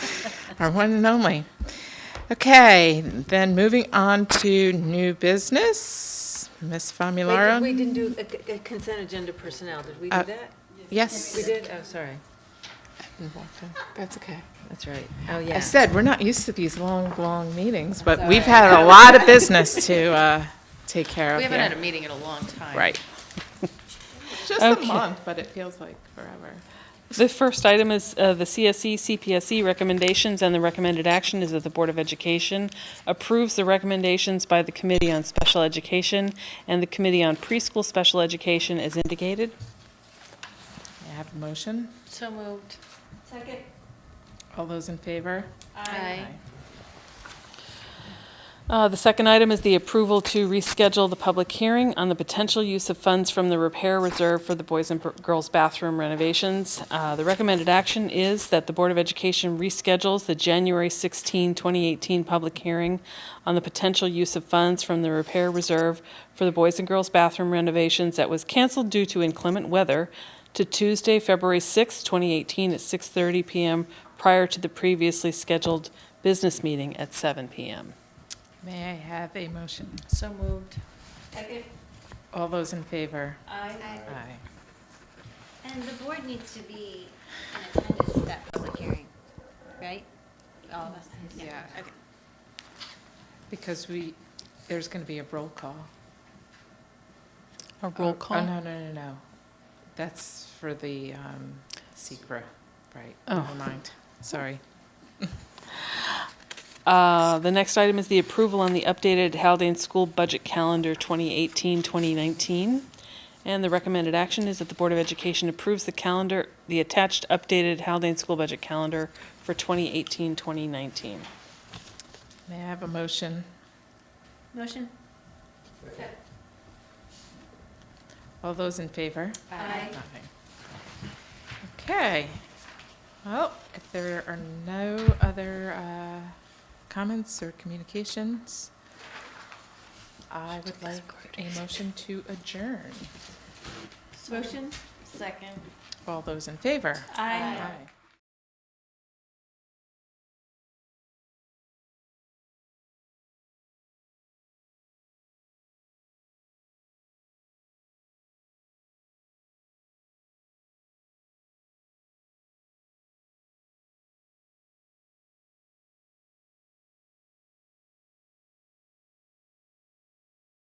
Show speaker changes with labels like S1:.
S1: Our one and only. Okay, then moving on to new business. Ms.
S2: Wait, We
S1: Famularo?
S2: didn't do a c- a consent agenda personnel, did we do
S1: Uh,
S2: that? We
S1: Yes.
S2: did, oh, sorry,
S1: That's okay.
S2: that's right, oh,
S1: I
S2: yeah.
S1: said, we're not used to these long, long meetings, but we've had a lot of business to uh, take care of
S3: We haven't had a
S1: here.
S3: meeting in a long time.
S1: Right. Just a
S4: Okay.
S1: month, but it feels like forever.
S4: The first item is uh, the CSE, CPSE E recommendations, and the recommended action is that the Board of Education approves the recommendations by the Committee on Special Education and the Committee on Preschool Special Education as indicated.
S1: May I have a motion?
S3: So moved.
S1: All those in favor?
S3: Aye.
S4: Uh, The second item is the approval to reschedule the public hearing on the potential use of funds from the repair reserve for the boys and per- girls bathroom renovations. Uh, The recommended action is that the Board of Education reschedules the January 16, 2018 public hearing on the potential use of funds from the repair reserve for the boys and girls bathroom renovations that was canceled due to inclement weather to Tuesday, February 6, 2018 at 6:30 PM prior to the previously scheduled business meeting at 7 PM.
S1: May I have a motion?
S3: So moved.
S1: All those in favor?
S5: Aye.
S1: Aye.
S5: And the board needs to be in attendance at that public hearing, right? All of us?
S3: Yeah, okay.
S1: Because we, there's going to be a roll call.
S4: A roll
S1: Oh,
S4: call?
S1: no, no, no, no. That's for the um, secret, right?
S4: Oh.
S1: Never mind. Sorry.
S4: Uh, The next item is the approval on the updated Haldane School Budget Calendar 2018-2019. And the recommended action is that the Board of Education approves the calendar, the attached updated Haldane School Budget Calendar for 2018-2019.
S1: May I have a motion?
S5: Motion?
S1: All those in favor?
S5: Aye.
S1: Nothing. Okay. Well, if there are no other uh, comments or communications, I would like a motion to adjourn.
S5: Motion?
S3: Second.
S1: All those in favor?
S3: Aye.
S1: Aye.